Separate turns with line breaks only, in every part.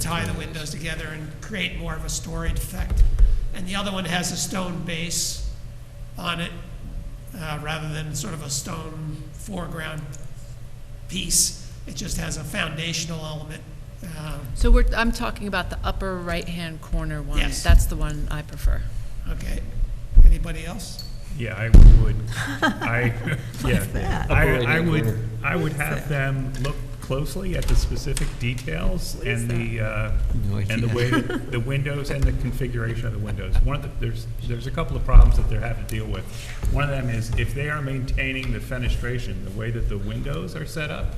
tie the windows together and create more of a storied effect. And the other one has a stone base on it uh, rather than sort of a stone foreground piece. It just has a foundational element. Um,
So we're, I'm talking about the upper right-hand corner one.
Yes.
That's the one I prefer.
Okay, anybody else?
Yeah, I would, I, yeah, I, I would, I would have them look closely at the specific details and the, uh,
No
and the
idea.
way, that the windows and the configuration of the windows. One of the, there's, there's a couple of problems that they're having to deal with. One of them is if they are maintaining the fenestration, the way that the windows are set up,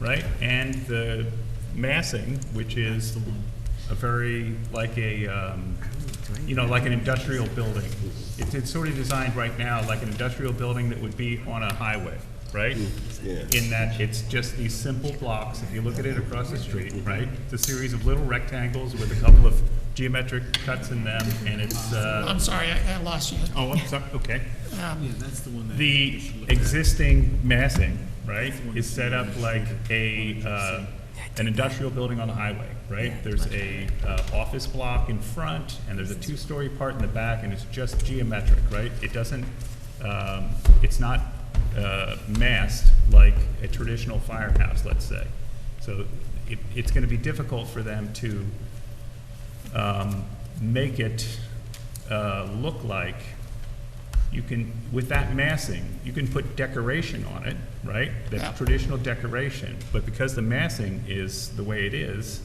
right? And the massing, which is a very, like a, um, you know, like an industrial building. It's, it's sort of designed right now like an industrial building that would be on a highway, right? In that it's just these simple blocks, if you look at it across the street, right? It's a series of little rectangles with a couple of geometric cuts in them, and it's, uh,
I'm sorry, I I lost you.
oh, I'm sorry, okay.
Um,
The existing massing, right, is set up like a, uh, an industrial building on the highway, right? There's a uh, office block in front, and there's a two-story part in the back, and it's just geometric, right? It doesn't, um, it's not uh, massed like a traditional firehouse, let's say. So it, it's gonna be difficult for them to um, make it uh, look like you can, with that massing, you can put decoration on it, right?
Yeah.
That's traditional decoration, but because the massing is the way it is,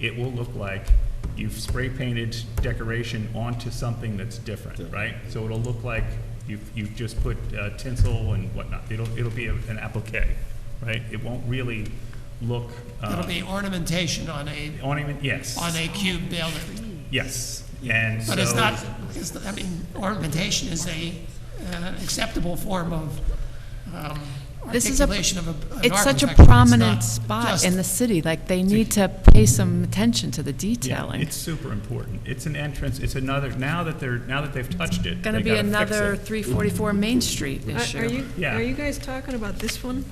it will look like you've spray painted decoration onto something that's different, right? So it'll look like you've, you've just put uh, tinsel and whatnot. It'll, it'll be a- an applique, right? It won't really look,
It'll
uh,
be ornamentation on a,
on even, yes.
on a cube building.
Yes, and so.
But it's not, it's, not- I mean, ornamentation is a uh, acceptable form of um,
This is a-
articulation of a- an
It's such
architecture.
a
not
prominent spot
just-
in the city, like, they need to pay some attention to the detailing.
It's super important. It's an entrance, it's another, now that they're, now that they've touched it,
Going to
they
be
gotta fix
another
it.
344 Main Street
Are- Are
issue.
you,
Yeah.
are you guys talking about this one?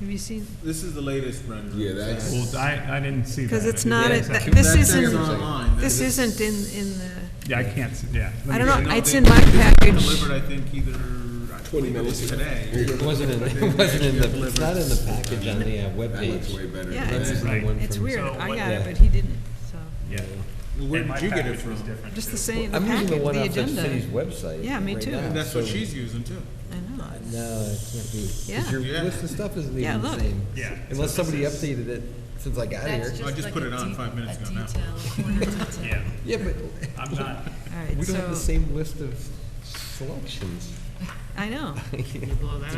Have you seen,
This is the latest rendering.
Yeah, that's-
Well, I, I didn't see that.
because it's
I
not,
didn't-
at-
exactly.
this
That's
isn't,
online.
this
That is-
isn't in, in the,
Yeah, I can't, see- yeah. Let me-
I don't know,
No,
it's
they-
in my
they
package.
Delivered, I think, either. I believe it was Today.
It wasn't in, it wasn't in the, it's not in the package on the uh, webpage.
Yeah,
This is
it's,
the
Right.
one
it's
from-
weird,
So
I
what-
got
yeah.
it, but he didn't, so,
Yeah.
Where
And my
did you get it
package was
from?
different,
just
too.
the same, the
I'm
package,
using the one
the
off the city's
agenda.
website.
Yeah, me
right
too.
now,
And
And that's what
so-
she's using too.
I know, it's-
No, it can't be. 'cause
Yeah.
Your
Yeah.
list of stuff isn't
Yeah,
even the
look.
same.
Yeah.
Unless somebody updated it since I got here.
I just put it on five minutes ago now.
Yeah,
Yeah, but
I'm not,
all
we don't have
right,
the
so,
same list of selections
I know,
to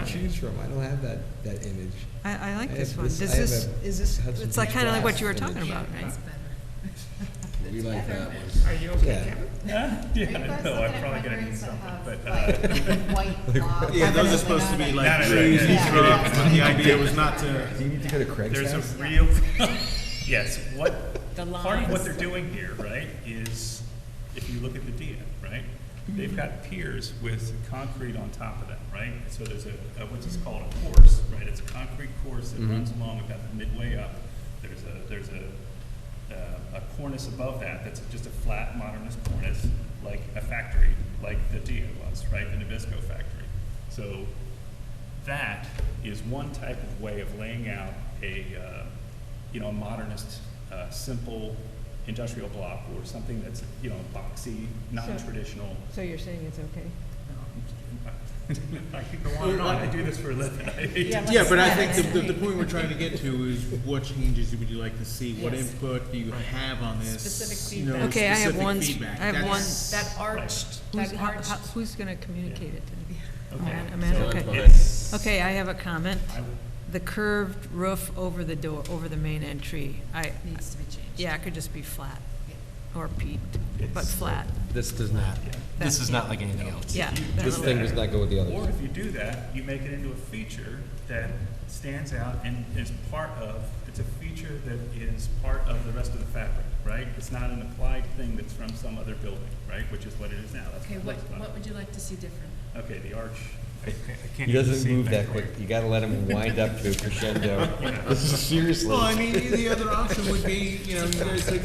choose from. I don't have that, that image.
I, I
I
like
have
this one,
this-
does
I have
this,
a
is this,
Hudson
it's like,
Beach
kinda like what you were
Drive
talking
image.
about, right?
We like that one.
Are you okay,
Yeah.
Kevin?
yeah, I know, I'm probably gonna need something, but, uh,
Yeah, those are supposed to be like
No, no, no,
trees
yeah,
you
yeah.
throw up, but the idea was not to.
Do you need to go to Craig's
there's a
house?
real, yes, what, part of what they're doing here, right, is, if you look at the DIA, right? They've got piers with concrete on top of them, right? So there's a, a- what's this called, a course, right? It's a concrete course that runs along about midway up. There's a, there's a, uh, a cornice above that that's just a flat modernist cornice, like a factory, like the DIA was, right? The Nabisco factory. So that is one type of way of laying out a, uh, you know, a modernist, uh, simple industrial block or something that's, you know, boxy, non-traditional.
So you're saying it's okay?
I could go on and on, I do this for a living. I hate to-
Yeah, but I think the, the, the point we're trying to get to is what changes would you like to see? What input do you have on this?
Specific
You know,
feedback.
Okay, I have
specific
one s-
feedback.
I have one-
That's-
That arched,
Who's,
that
how,
arched.
how- who's gonna communicate it to me?
Okay.
Amanda- Amanda,
So
okay.
it's-
Okay, I have a comment.
I would-
The curved roof over the door, over the main entry, I,
Needs to be changed.
yeah, it could just be flat, or peaked, but
It's-
flat.
This does not,
That's-
This is not like anything else.
Yeah. that
this
little-
thing does not go with the other.
Or if you do that, you make it into a feature that stands out and is part of, it's a feature that is part of the rest of the fabric, right? It's not an applied thing that's from some other building, right, which is what it is now. That's
Okay,
it
what,
looks like.
what would you like to see different?
Okay, the arch, I can't- I can't even
He doesn't
see
move
back
that
there.
quick. You gotta let him wind up to a crescendo. This is seriously.
Well, I mean, the other option would be, you know, you guys take a